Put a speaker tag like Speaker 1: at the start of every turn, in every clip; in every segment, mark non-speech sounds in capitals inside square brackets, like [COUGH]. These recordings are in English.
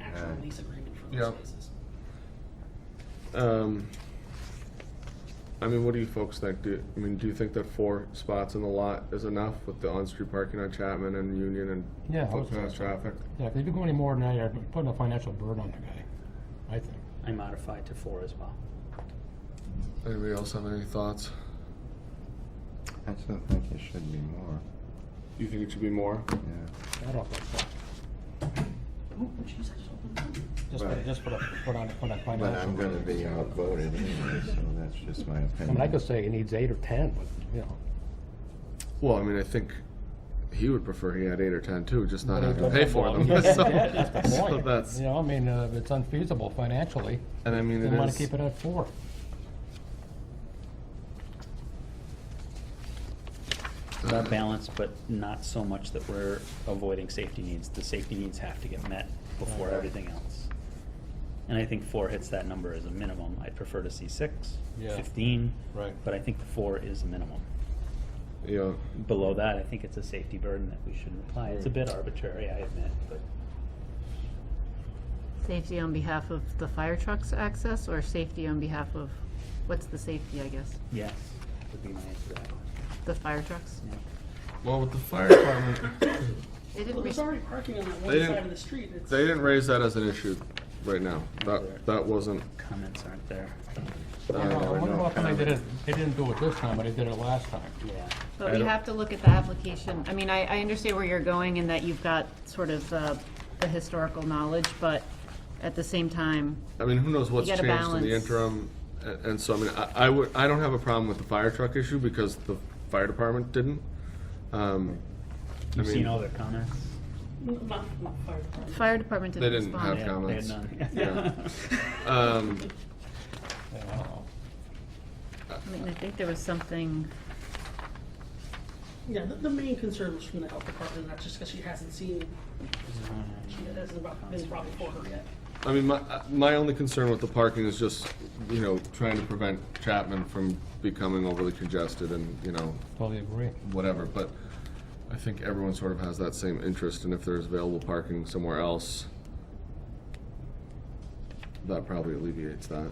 Speaker 1: actual
Speaker 2: Okay.
Speaker 1: lease agreement for
Speaker 3: Yeah.
Speaker 1: those spaces.
Speaker 3: Um, I mean, what do you folks think? Do, I mean, do you think that four spots in the lot is enough with the on-street parking on Chapman and Union and
Speaker 4: Yeah, I
Speaker 3: foot
Speaker 4: would say
Speaker 3: path
Speaker 4: so.
Speaker 3: traffic?
Speaker 4: Yeah, if you go any more than that, you're putting a financial burden on the guy, I think.
Speaker 5: I modified to four as well.
Speaker 3: Anybody else have any thoughts?
Speaker 2: I still think it should be more,
Speaker 3: You think it should be more?
Speaker 2: yeah.
Speaker 4: I don't think so.
Speaker 1: Ooh, jeez, I just opened it up.
Speaker 4: Just
Speaker 2: Right.
Speaker 4: put, just put a, put on, put on financial.
Speaker 2: But I'm gonna
Speaker 4: burden.
Speaker 2: be outvoted anyway, so that's just my
Speaker 4: I
Speaker 2: opinion.
Speaker 4: mean, I could say he needs eight or ten, but, you know,
Speaker 3: Well, I mean, I think he would prefer he had eight or ten too, just not
Speaker 4: But
Speaker 3: have
Speaker 4: it
Speaker 3: to pay
Speaker 4: doesn't
Speaker 3: for them.
Speaker 4: belong. [LAUGHS] Yeah,
Speaker 3: [LAUGHS] So-
Speaker 4: that's the
Speaker 3: [LAUGHS] so
Speaker 4: point.
Speaker 3: that's-
Speaker 4: you know, I mean, uh, it's unfeasible financially.
Speaker 3: and I mean,
Speaker 4: They
Speaker 3: it
Speaker 4: wanna
Speaker 3: is-
Speaker 4: keep it at four.
Speaker 5: It's about balance, but not so much that we're avoiding safety needs. The safety needs have to get met before everything else. And I think four hits that number as a minimum. I'd prefer to see six,
Speaker 4: Yeah.
Speaker 5: fifteen.
Speaker 4: Right.
Speaker 5: But I think the four is the minimum.
Speaker 3: Yeah,
Speaker 5: Below that, I think it's a safety burden that we shouldn't apply. It's a bit arbitrary, I admit, but
Speaker 6: Safety on behalf of the fire trucks access or safety on behalf of, what's the safety, I guess?
Speaker 5: yes, would be my answer to that.
Speaker 6: The fire trucks?
Speaker 5: Yeah.
Speaker 3: well, with the fire department,
Speaker 6: They
Speaker 1: Well,
Speaker 6: didn't,
Speaker 1: there's
Speaker 6: res-
Speaker 1: already parking on that
Speaker 3: They
Speaker 1: one
Speaker 3: didn't-
Speaker 1: side of the street. It's-
Speaker 3: they didn't raise that as an issue right now.
Speaker 5: Neither.
Speaker 3: That, that wasn't,
Speaker 5: Comments aren't there.
Speaker 4: I don't know, "Oh, I
Speaker 2: never
Speaker 4: wonder
Speaker 2: know.
Speaker 4: how come they did it, they didn't do it this time, but they did it last time.
Speaker 5: Yeah.
Speaker 6: but
Speaker 3: I
Speaker 6: we
Speaker 3: don't-
Speaker 6: have to look at the application. I mean, I, I understand where you're going and that you've got sort of the, the historical knowledge, but at the same time,
Speaker 3: I mean, who knows what's
Speaker 6: gotta
Speaker 3: changed in the
Speaker 6: balance.
Speaker 3: interim? a- And so, I mean, I, I would, I don't have a problem with the fire truck issue because the fire department didn't. Um, I
Speaker 5: You've seen
Speaker 3: mean,
Speaker 5: all their comments?
Speaker 1: Not, not fire department.
Speaker 6: fire department didn't
Speaker 3: They didn't
Speaker 6: respond.
Speaker 3: have-
Speaker 5: Yeah, they had
Speaker 3: comments.
Speaker 5: none. [LAUGHS]
Speaker 3: um,
Speaker 4: Yeah, I don't know.
Speaker 6: I mean, I think there was something,
Speaker 1: Yeah, the, the main concern was from the health department, and that's just because she hasn't seen, she hasn't brought- been brought before her yet.
Speaker 3: I mean, my, uh, my only concern with the parking is just, you know, trying to prevent Chapman from becoming overly congested and, you know,
Speaker 4: Totally agree.
Speaker 3: whatever, but I think everyone sort of has that same interest, and if there's available parking somewhere else, that probably alleviates that.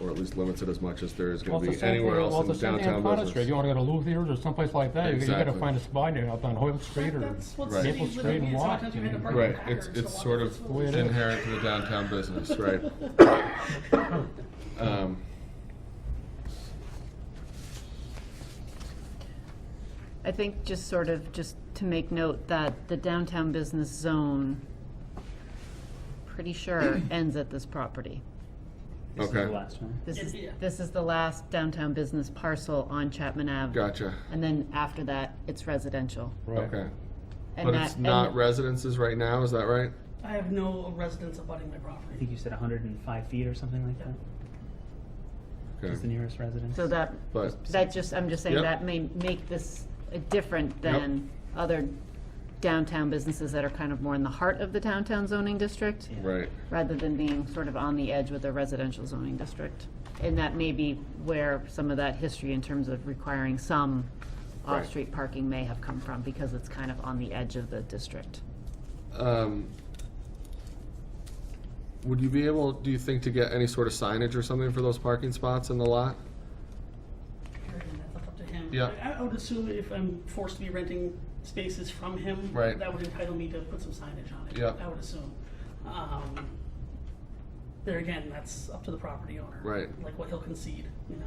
Speaker 3: Or at least limits it as much as there is
Speaker 4: Well,
Speaker 3: gonna
Speaker 4: it's
Speaker 3: be
Speaker 4: the same thing-
Speaker 3: anywhere
Speaker 4: well,
Speaker 3: else in
Speaker 4: it's the same thing on
Speaker 3: downtown
Speaker 4: Conner Street. You
Speaker 3: business.
Speaker 4: wanna go to Luthier's or someplace like that, you- you gotta
Speaker 3: Exactly.
Speaker 4: find a spot out on Hoyle Street or.
Speaker 1: That's what
Speaker 3: Right.
Speaker 1: city
Speaker 4: Maple
Speaker 1: living
Speaker 4: Street
Speaker 1: is,
Speaker 4: and
Speaker 1: sometimes you had to
Speaker 4: Watt.
Speaker 1: park in
Speaker 3: Right,
Speaker 1: back
Speaker 3: it's,
Speaker 1: or
Speaker 3: it's
Speaker 1: so
Speaker 3: sort
Speaker 1: on.
Speaker 3: of
Speaker 1: It's
Speaker 4: way it is.
Speaker 3: inherent to the downtown business, right? Um,
Speaker 6: I think just sort of, just to make note that the downtown business zone, pretty
Speaker 3: [CLEARS THROAT]
Speaker 6: sure, ends at this property.
Speaker 5: This is
Speaker 3: Okay.
Speaker 5: the last one.
Speaker 6: This is,
Speaker 1: Yeah.
Speaker 6: this is the last downtown business parcel on Chapman Ave.
Speaker 3: Gotcha,
Speaker 6: And then after that, it's residential.
Speaker 4: Right.
Speaker 3: okay.
Speaker 6: And
Speaker 3: But
Speaker 6: that-
Speaker 3: it's not
Speaker 6: and-
Speaker 3: residences right now, is that right?
Speaker 1: I have no residents abutting my
Speaker 5: I
Speaker 1: property.
Speaker 5: think you said hundred and five feet or something like that, is the
Speaker 3: Okay,
Speaker 5: nearest residence.
Speaker 6: So that,
Speaker 3: but,
Speaker 6: that just, I'm just saying,
Speaker 3: Yep.
Speaker 6: that may make this uh, different than other downtown businesses that are kind of more in the heart of the downtown zoning district,
Speaker 5: Yeah.
Speaker 3: right,
Speaker 6: rather than being sort of on the edge with a residential zoning district. And that may be where some of that history in terms of requiring some
Speaker 3: Right.
Speaker 6: off-street parking may have come from, because it's kind of on the edge of the district.
Speaker 3: um. Would you be able, do you think, to get any sort of signage or something for those parking spots in the lot?
Speaker 1: Again, That's up to him.
Speaker 3: Yeah.
Speaker 1: I, I would assume if I'm forced to be renting spaces from him,
Speaker 3: Right.
Speaker 1: that would entitle me to put some signage on it.
Speaker 3: Yeah.
Speaker 1: I would assume. Um, there again, that's up to the property owner.
Speaker 3: Right.
Speaker 1: Like what he'll concede, you know.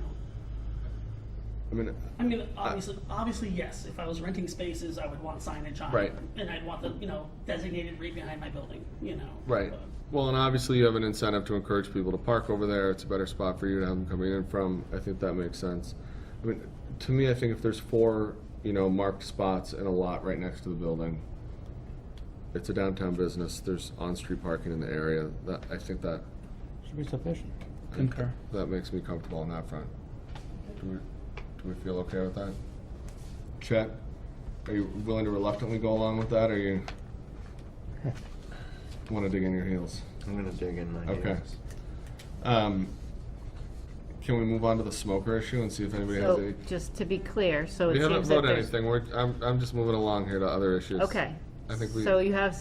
Speaker 3: I mean,
Speaker 1: I mean, obviously, obviously, yes. If I was renting spaces, I would want signage on, it,
Speaker 3: Right.
Speaker 1: and I'd want the you know designated right behind my building, you know.
Speaker 3: right.
Speaker 1: but-
Speaker 3: Well, and obviously you have an incentive to encourage people to park over there. It's a better spot for you to have them coming in from. I think that makes sense. I mean, to me, I think if there's four, you know, marked spots in a lot right next to the building, it's a downtown business. There's on-street parking in the area. That, I think that,
Speaker 4: Should be sufficient.
Speaker 5: Concur.
Speaker 3: that makes me comfortable on that front. Do we, do we feel okay with that? Chet, are you willing to reluctantly go along with that
Speaker 6: [LAUGHS]
Speaker 3: or you want to dig in your heels?
Speaker 2: I'm gonna dig in my
Speaker 3: Okay.
Speaker 2: heels.
Speaker 3: Um, can we move on to the smoker issue and see if anybody has
Speaker 6: So,
Speaker 3: any?
Speaker 6: just to be clear, so it
Speaker 3: We haven't
Speaker 6: seems that
Speaker 3: voted
Speaker 6: there's.
Speaker 3: anything. We're, I'm, I'm just moving along here to other issues.
Speaker 6: Okay.
Speaker 3: I think we-
Speaker 6: So you have